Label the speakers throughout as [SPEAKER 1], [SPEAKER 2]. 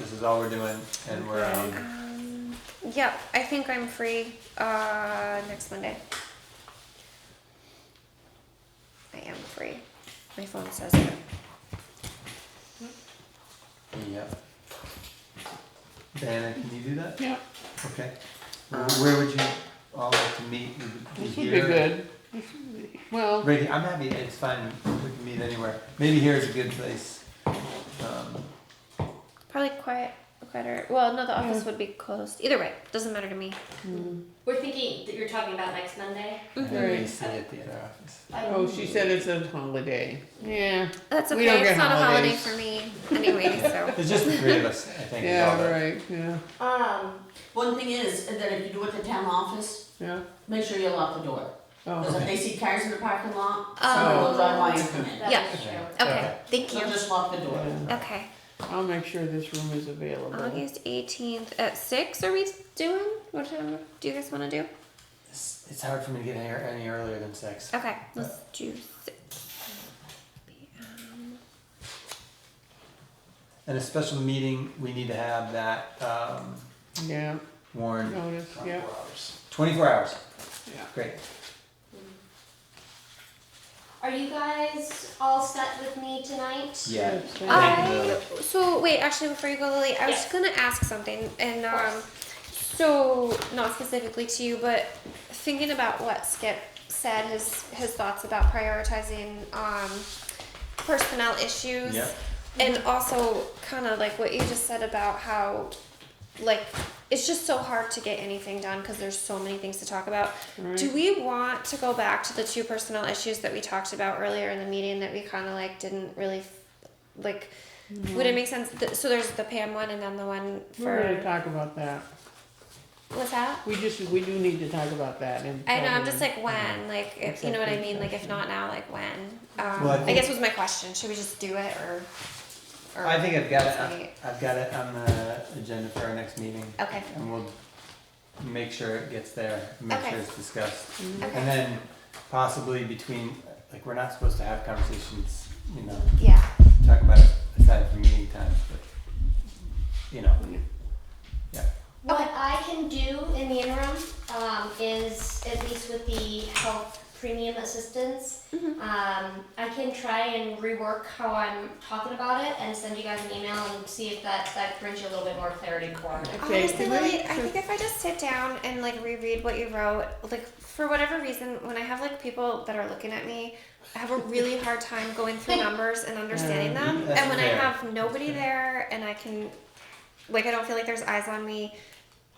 [SPEAKER 1] is all we're doing, and we're um,
[SPEAKER 2] Um, yep, I think I'm free uh, next Monday. I am free. My phone says it.
[SPEAKER 1] yeah. Diana, can you do that?
[SPEAKER 3] Yeah,
[SPEAKER 1] Okay. Where- Where would you all like to meet? Would it
[SPEAKER 3] this would be
[SPEAKER 1] here?
[SPEAKER 3] good. This would be- Well,
[SPEAKER 1] Right here. I'm happy. It's fine. We can meet anywhere. Maybe here is a good place. Um,
[SPEAKER 2] Probably quiet, quieter. Well, no, the office would be closed. Either way, doesn't matter to me.
[SPEAKER 4] We're thinking that you're talking about next Monday.
[SPEAKER 1] Maybe we see at the other office.
[SPEAKER 3] oh, she said it's a holiday. Yeah,
[SPEAKER 2] That's okay.
[SPEAKER 3] We don't get
[SPEAKER 2] it's not
[SPEAKER 3] holidays.
[SPEAKER 2] a holiday for me anyway. So
[SPEAKER 1] There's just the three of us. I think. is all
[SPEAKER 3] yeah,
[SPEAKER 1] that-
[SPEAKER 3] right, yeah,
[SPEAKER 4] Um,
[SPEAKER 5] One thing is, that if you do it at the town office,
[SPEAKER 3] yeah.
[SPEAKER 5] make sure you lock the door. Because
[SPEAKER 3] Oh,
[SPEAKER 5] if they see cars in the parking lot, someone
[SPEAKER 2] um,
[SPEAKER 5] will drive by and come in.
[SPEAKER 4] that
[SPEAKER 2] Yeah.
[SPEAKER 4] is true.
[SPEAKER 1] Yeah.
[SPEAKER 2] okay. Thank
[SPEAKER 5] So
[SPEAKER 2] you.
[SPEAKER 5] just lock the door.
[SPEAKER 3] yeah.
[SPEAKER 2] Okay,
[SPEAKER 3] I'll make sure this room is available.
[SPEAKER 2] August eighteenth at six. Are we doing? What time do you guys want to do?
[SPEAKER 1] It's, it's hard for me to get any, any earlier than six.
[SPEAKER 2] Okay, let's do six.
[SPEAKER 1] And a special meeting, we need to have that um,
[SPEAKER 3] Yeah,
[SPEAKER 1] Warren.
[SPEAKER 3] notice, yeah,
[SPEAKER 1] Twenty-four hours.
[SPEAKER 3] yeah.
[SPEAKER 1] Great.
[SPEAKER 4] Are you guys all set with me tonight?
[SPEAKER 1] Yeah.
[SPEAKER 3] Yes,
[SPEAKER 2] Ah,
[SPEAKER 1] Thank you,
[SPEAKER 2] I
[SPEAKER 1] Lily.
[SPEAKER 2] so wait, actually before you go, Lily, I was
[SPEAKER 4] Yes.
[SPEAKER 2] gonna ask something, and
[SPEAKER 4] course.
[SPEAKER 2] um, so not specifically to you, but thinking about what Skip said, his his thoughts about prioritizing um, personnel issues,
[SPEAKER 1] Yeah.
[SPEAKER 2] and
[SPEAKER 4] Mm-hmm.
[SPEAKER 2] also kind of like what you just said about how like it's just so hard to get anything done because there's so many things to talk about. Do we want to go back to the two personnel issues that we talked about earlier in the meeting that we kind of like didn't really f- like? Would it make sense? Th- so there's the Pam one and then the one
[SPEAKER 3] We're gonna
[SPEAKER 2] for
[SPEAKER 3] talk about that.
[SPEAKER 2] what's that?
[SPEAKER 3] We just, we do need to talk about that and.
[SPEAKER 2] I know. I'm just like when, like if you know what I
[SPEAKER 3] Executive
[SPEAKER 2] mean. Like if
[SPEAKER 3] session.
[SPEAKER 2] not now, like when? Um,
[SPEAKER 1] Well, I
[SPEAKER 2] I
[SPEAKER 1] think-
[SPEAKER 2] guess was my question. Should we just do it or? or
[SPEAKER 1] I think I've got it.
[SPEAKER 2] Right.
[SPEAKER 1] I've got it on the agenda for our next meeting,
[SPEAKER 2] Okay.
[SPEAKER 1] and we'll make sure it gets there. Make
[SPEAKER 2] Okay. Mm-hmm.
[SPEAKER 1] sure it's discussed,
[SPEAKER 2] Okay.
[SPEAKER 1] and then possibly between, like, we're not supposed to have conversations. You know,
[SPEAKER 2] Yeah.
[SPEAKER 1] talk about it aside from meeting times, but you know,
[SPEAKER 4] What I can do in the interim um, is, at least with the health premium assistance, um, I can try and rework how I'm talking about it and send you guys an email and see if that, that brings you a little bit more clarity for me.
[SPEAKER 3] Okay,
[SPEAKER 2] Honestly,
[SPEAKER 3] can
[SPEAKER 2] Lily,
[SPEAKER 3] we-
[SPEAKER 2] I think if I just sit down and like reread what you wrote, like for whatever reason, when I have like people that are looking at me, I have a really hard time going through numbers and understanding
[SPEAKER 3] Yeah,
[SPEAKER 2] them.
[SPEAKER 1] that's
[SPEAKER 2] And when
[SPEAKER 1] fair.
[SPEAKER 2] I have nobody there and I can, like, I don't feel like there's eyes on me,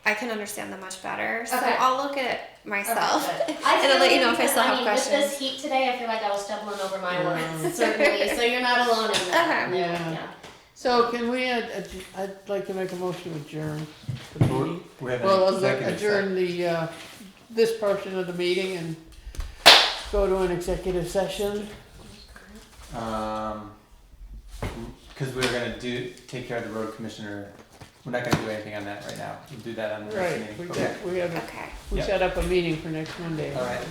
[SPEAKER 2] I can understand them much better. So
[SPEAKER 4] Okay.
[SPEAKER 2] I'll look at it myself.
[SPEAKER 4] Okay, good.
[SPEAKER 2] And I'll
[SPEAKER 4] feel
[SPEAKER 2] let you
[SPEAKER 4] like
[SPEAKER 2] know if I
[SPEAKER 4] because,
[SPEAKER 2] still have
[SPEAKER 4] mean, With
[SPEAKER 2] questions.
[SPEAKER 4] this heat today, I feel like I was stumbling over my words, certainly. So you're not alone in that.
[SPEAKER 3] Okay. Yeah.
[SPEAKER 4] yeah.
[SPEAKER 3] So can we, ad- ad- I'd like to make a motion to adjourn the meeting.
[SPEAKER 1] we have an
[SPEAKER 3] Well, let's
[SPEAKER 1] executive session.
[SPEAKER 3] adjourn the, uh, this portion of the meeting and go to an executive session.
[SPEAKER 1] Um, because we're gonna do, take care of the road commissioner, we're not gonna do anything on that right now, we'll do that on the next
[SPEAKER 3] Right,
[SPEAKER 1] meeting.
[SPEAKER 3] we
[SPEAKER 1] Okay.
[SPEAKER 3] got, we have, a-
[SPEAKER 2] Okay.
[SPEAKER 3] we
[SPEAKER 1] Yep.
[SPEAKER 3] set up a meeting for next Monday. Uh-huh.
[SPEAKER 1] All right.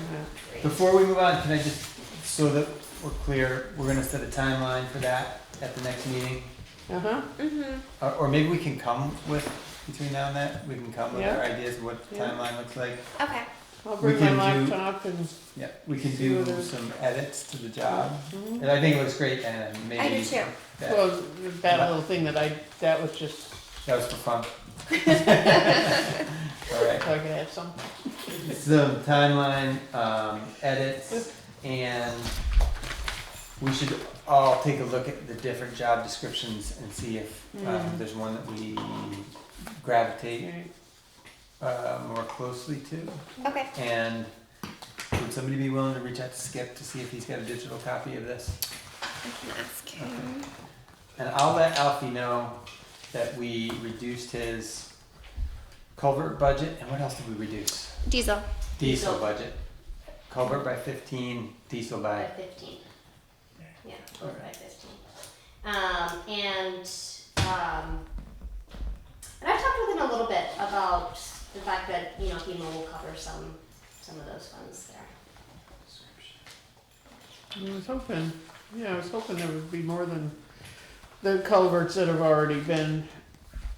[SPEAKER 3] Yeah.
[SPEAKER 1] Before we move on, can I just, so that we're clear, we're gonna set a timeline for that at the next meeting?
[SPEAKER 3] Uh-huh,
[SPEAKER 2] Mm-hmm.
[SPEAKER 1] Or, or maybe we can come with, between now and then, we can come with our ideas of what the
[SPEAKER 3] Yeah.
[SPEAKER 1] timeline looks like.
[SPEAKER 2] Okay.
[SPEAKER 3] I'll
[SPEAKER 1] We
[SPEAKER 3] bring my
[SPEAKER 1] can do-
[SPEAKER 3] laptop and,
[SPEAKER 1] Yeah, we can
[SPEAKER 3] See
[SPEAKER 1] do
[SPEAKER 3] what it is.
[SPEAKER 1] some edits to the job,
[SPEAKER 3] Mhm.
[SPEAKER 1] and I think it looks great, and
[SPEAKER 2] I do
[SPEAKER 1] maybe
[SPEAKER 2] too.
[SPEAKER 1] that,
[SPEAKER 3] well, that little thing that I, that was just,
[SPEAKER 1] that was for fun. Alright.
[SPEAKER 3] so I could have some.
[SPEAKER 1] some timeline um, edits, and we should all take a look at the different job descriptions and see if um,
[SPEAKER 3] Mm.
[SPEAKER 1] there's one that we gravitate
[SPEAKER 3] Right.
[SPEAKER 1] uh, more closely to.
[SPEAKER 2] Okay.
[SPEAKER 1] And would somebody be willing to reach out to Skip to see if he's got a digital copy of this?
[SPEAKER 2] I can ask him.
[SPEAKER 1] And I'll let Alfie know that we reduced his culvert budget, and what else did we reduce?
[SPEAKER 2] Diesel.
[SPEAKER 1] Diesel
[SPEAKER 5] Diesel.
[SPEAKER 1] budget. Culvert by fifteen, diesel by
[SPEAKER 4] By fifteen. Yeah, over by fifteen. Um, and, um, and I talked with him a little bit about the fact that, you know, FEMA will cover some, some of those funds there.
[SPEAKER 3] I was hoping, yeah, I was hoping there would be more than the culverts that have already been